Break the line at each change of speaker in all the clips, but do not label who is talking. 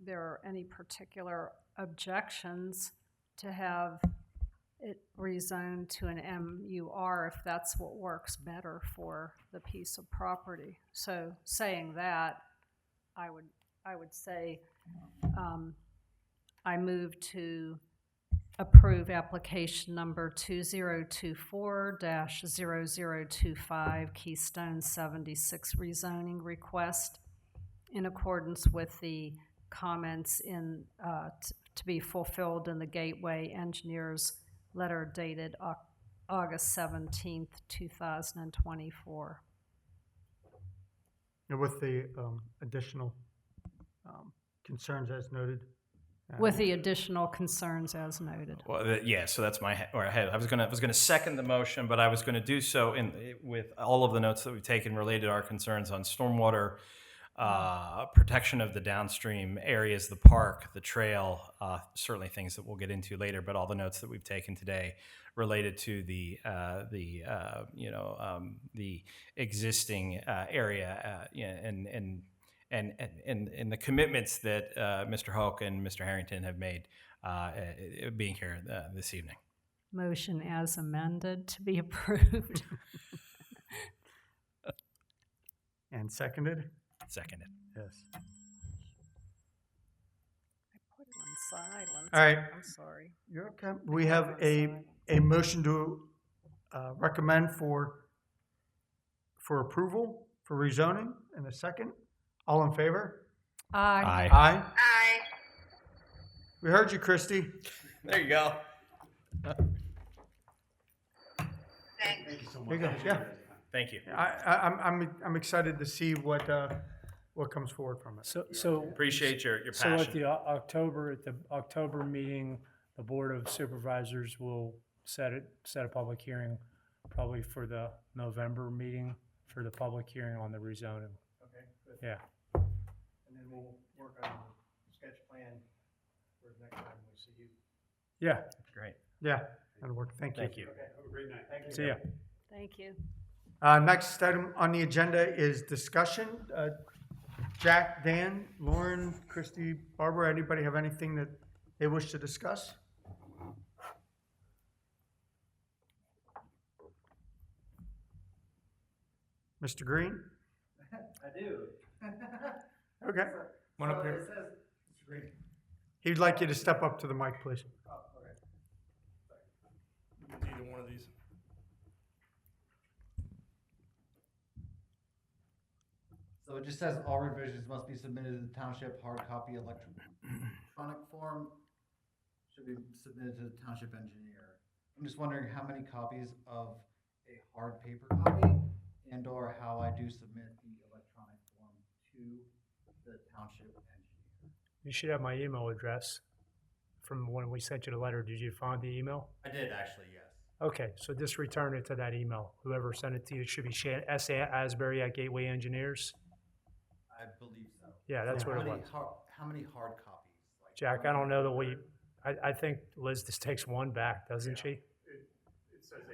there are any particular objections to have it rezoned to an MUR if that's what works better for the piece of property. So saying that, I would, I would say, um, I move to approve application number two zero two four dash zero zero two five Keystone seventy-six rezoning request in accordance with the comments in, uh, t- to be fulfilled in the Gateway Engineers letter dated Au- August seventeenth, two thousand and twenty-four.
And with the um, additional um, concerns as noted. uh,
With the additional concerns as noted.
Well, th- yeah. So that's my he- or head. I was gonna I was gonna second the motion, but I was gonna do so in with all of the notes that we've taken related to our concerns on stormwater, uh, protection of the downstream areas, the park, the trail, uh, certainly things that we'll get into later. But all the notes that we've taken today related to the uh, the uh, you know um, the existing uh, area uh, yeah, and and. And, and, and, and the commitments that uh, Mr. Hoke and Mr. Harrington have made uh, uh, uh, being here uh, this evening.
Motion as amended to be approved.
And seconded?
Seconded.
Yes.
Put it on silence.
All right.
I'm sorry.
You're okay. We have a, a motion to uh, recommend for, for approval, for rezoning, and a second. All in favor?
Aye.
Aye. Aye. We heard you, Christie.
There you go.
There you go. Yeah.
Thank you.
I, I, I'm, I'm, I'm excited to see what, uh, what comes forward from it.
So, so,
Appreciate your, your
so at
passion.
the O- October, at the October meeting, the Board of Supervisors will set it, set a public hearing probably for the November meeting for the public hearing on the rezoning. Okay. Yeah,
And then we'll work on the sketch plan for the next time we see you.
yeah,
Great.
Yeah, that'll work. Thank you.
Thank you.
Have a great night. Thank
see ya.
Thank you.
Uh, next item on the agenda is discussion. Uh, Jack, Dan, Lauren, Christy, Barbara, anybody have anything that they wish to discuss? Mr. Green?
I do.
Okay. One up
It
here.
says, Mr. Green,
He'd like you to step up to the mic, please.
either one of these. So it just says all revisions must be submitted to the township hard copy electron- electronic form. Should be submitted to the township engineer. I'm just wondering how many copies of a hard paper copy and or how I do submit the electronic form to the township engineer.
You should have my email address from when we sent you the letter. Did you find the email?
I did actually, yes.
Okay, so just return it to that email. Whoever sent it to you, it should be Shan, S. A. Asbury at Gateway Engineers.
I believe so.
Yeah, that's
How
what it
many
was.
har- How many hard copies? Like,
Jack, I don't know that we, I, I think Liz just takes one back, doesn't she?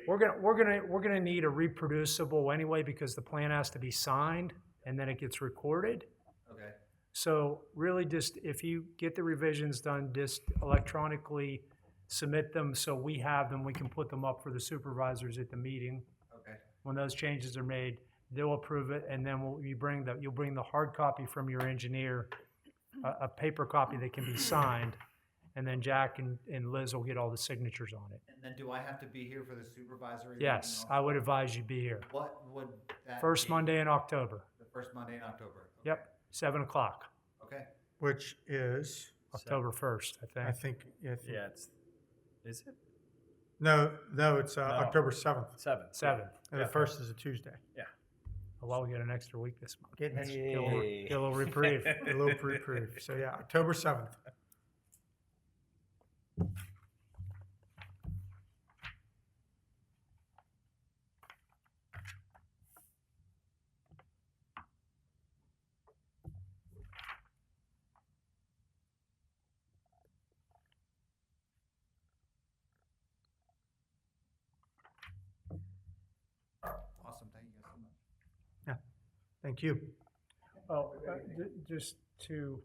We're gonna, we're gonna, we're gonna need a reproducible anyway, because the plan has to be signed, and then it gets recorded.
Okay,
So really just, if you get the revisions done, just electronically submit them, so we have them, we can put them up for the supervisors at the meeting.
okay,
When those changes are made, they'll approve it, and then we'll, you bring the, you'll bring the hard copy from your engineer, a, a paper copy that can be signed, and then Jack and, and Liz will get all the signatures on it.
and then do I have to be here for the supervisory? meeting
Yes,
also?
I would advise you be here.
What would that?
First
be?
Monday in October,
The first Monday in October? Okay,
yep, seven o'clock,
Okay,
Which is,
October first, I
I
think.
think, I think-
Yeah, it's, is it?
no, no, it's uh,
No.
October 7th.
Seven.
Seven. Oh,
And The first is a Tuesday.
Well, we get an extra week this month.
Get an extra-
Get a little- get a little reprieve.
a little reprieve. So yeah, October seventh.
awesome, thank you guys so much.
Thank you.
Oh, uh, ju- just to